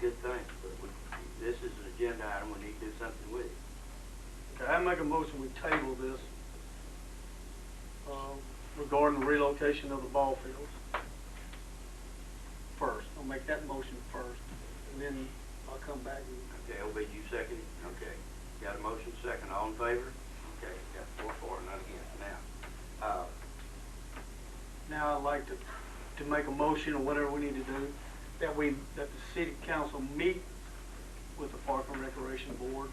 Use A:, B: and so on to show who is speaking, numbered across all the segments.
A: good thing, but we- this is an agenda item, we need to do something with it.
B: Okay, I make a motion, we table this um, regarding the relocation of the ball fields. First, I'll make that motion first, and then I'll come back and,
A: Okay, LB, you second it? Okay. Got a motion second, all in favor? Okay, got four for, none against. Now, uh,
B: now I'd like to, to make a motion or whatever we need to do, that we, that the city council meet with the Park and Recreation Board.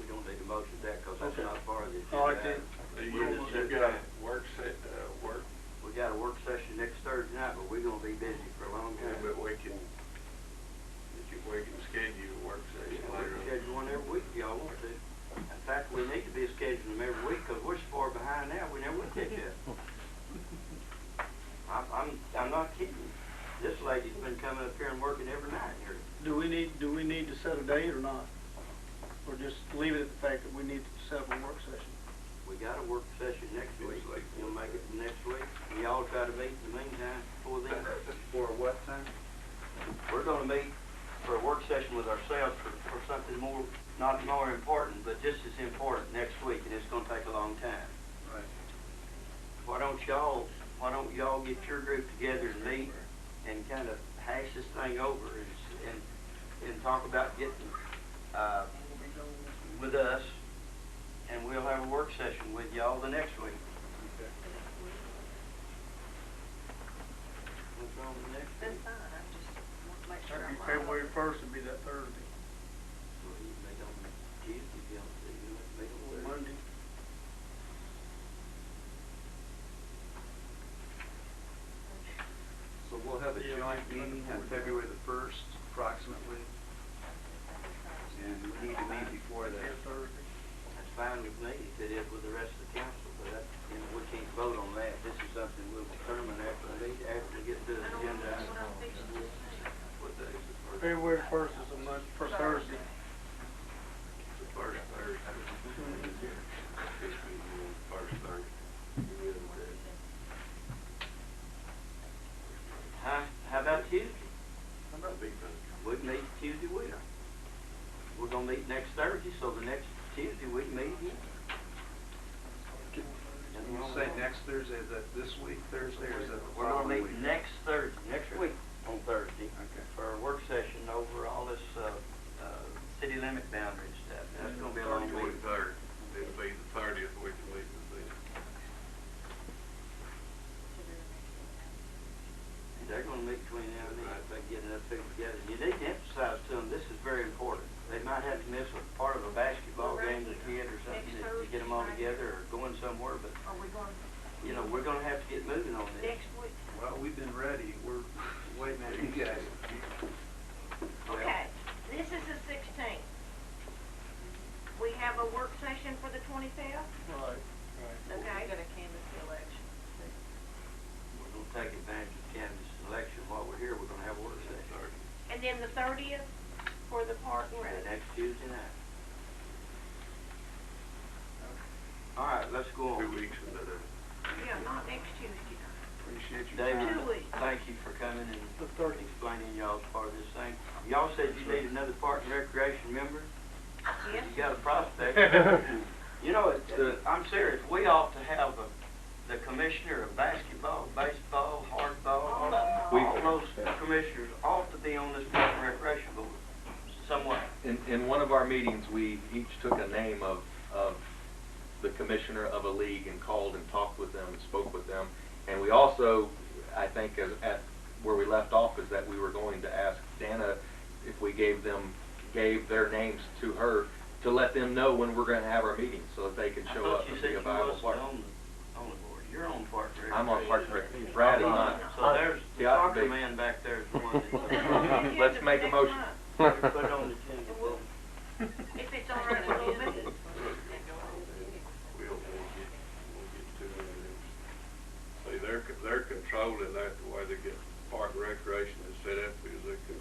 A: we don't need a motion to that, because that's
B: Okay.
A: not part of the agenda.
B: All right, then.
A: item. We'll
C: You,
A: just
C: you
A: sit
C: got
A: down.
C: a work set, uh, work,
A: We got a work session next Thursday night, but we're gonna be busy for a long time.
C: but we can, that you, we can schedule a work
A: We
C: session
A: can
C: later.
A: Schedule one every week, if y'all want to. In fact, we need to be scheduling them every week, because we're so far behind now, we never would catch up. I'm, I'm, I'm not kidding. This lady's been coming up here and working every night here.
B: Do we need, do we need to set a date or not? Or just leave it at the fact that we need to set up a work session?
A: We got a work session next week. We'll make it next week. And y'all try to meet in the meantime before then. For what time? We're gonna meet for a work session with ourselves for, for something more, not more important, but just as important next week, and it's gonna take a long time.
C: Right.
A: Why don't y'all, why don't y'all get your group together and meet and kind of hash this thing over and, s- and, and talk about getting, uh, with us, and we'll have a work session with y'all the next week. What's wrong with next
D: That's
A: week?
D: fine, I just want to make sure
B: That'd
D: I'm.
B: be
D: right.
B: February first would be that Thursday.
A: Well, you meet on Tuesday, you don't, you don't meet on Thursday.
B: Monday.
E: So we'll have a
B: Yeah,
E: joint
B: we can do it
E: meeting on
B: before.
E: February the first approximately, and we need to meet before
B: Yeah,
E: that.
B: Thursday.
A: That's fine with me, if it is with the rest of the council, but that, you know, we can't vote on that. This is something we'll determine after we, after we get to the
D: I don't
A: agenda.
D: know what I'm
A: item.
D: fixing to say.
C: What day is the first?
B: February first is a month, for Thursday.
C: The first Thursday. It's been the first Thursday.
A: Huh? How about Tuesday?
C: How about Big Thursday?
A: We can meet Tuesday week. We're gonna meet next Thursday, so the next Tuesday we can meet again.
E: When you say next Thursday, is that this week Thursday or is that the
A: We're gonna
E: following week?
A: meet next Thursday, next week, on Thursday.
E: Okay.
A: For a work session over all this, uh, uh, city limit boundary stuff. That's gonna be a long meeting.
C: Twenty-third, it'll be the thirtieth we can meet with them.
A: They're gonna meet between now and then, if they get enough people together. You need to emphasize to them, this is very important. They might have to miss a part of a basketball game to a kid or something, to to get them all together, or going somewhere, but,
D: Are we going
A: you know, we're gonna have to get moving on this.
D: next week?
E: Well, we've been ready, we're waiting on you guys.
A: Well,
D: Okay, this is the sixteenth. We have a work session for the twenty-fifth,
B: Right.
D: okay? We're gonna canvass the election.
A: We're gonna take advantage of Kansas election while we're here, we're gonna have a work session.
D: And then the thirtieth for the park and
A: Right,
D: rec.
A: next Tuesday night. All right, let's go
C: Two
A: on.
C: weeks and then, uh,
D: Yeah, not next Tuesday night.
E: Appreciate you.
A: David,
D: Two weeks.
A: thank you for coming and
B: The thirty.
A: explaining y'all's part of this thing. Y'all said you need another park and recreation member?
D: Yes,
A: You got a prospect. You know, it- the- I'm serious, we ought to have a- the commissioner of basketball, baseball,
D: All
A: hardball,
D: of them.
A: all those commissioners ought to be on this park and recreation board somewhere.
F: In, in one of our meetings, we each took a name of, of the commissioner of a league and called and talked with them and spoke with them. And we also, I think, as, at where we left off is that we were going to ask Dana if we gave them, gave their names to her to let them know when we're gonna have our meeting so that they can
A: I
F: show
A: thought
F: up
A: you
F: and
A: said
F: be a
A: you
F: viable
A: wasn't
F: part.
A: on the- on the board. You're on Park and Rec.
F: I'm on Park and Rec. Brad is not.
A: So there's, the
F: Yeah,
A: soccer
F: they-
A: man back there is the one
D: Well, that's on the
F: Let's
D: agenda
F: make a
D: for next
F: motion.
D: month.
A: that, put it on the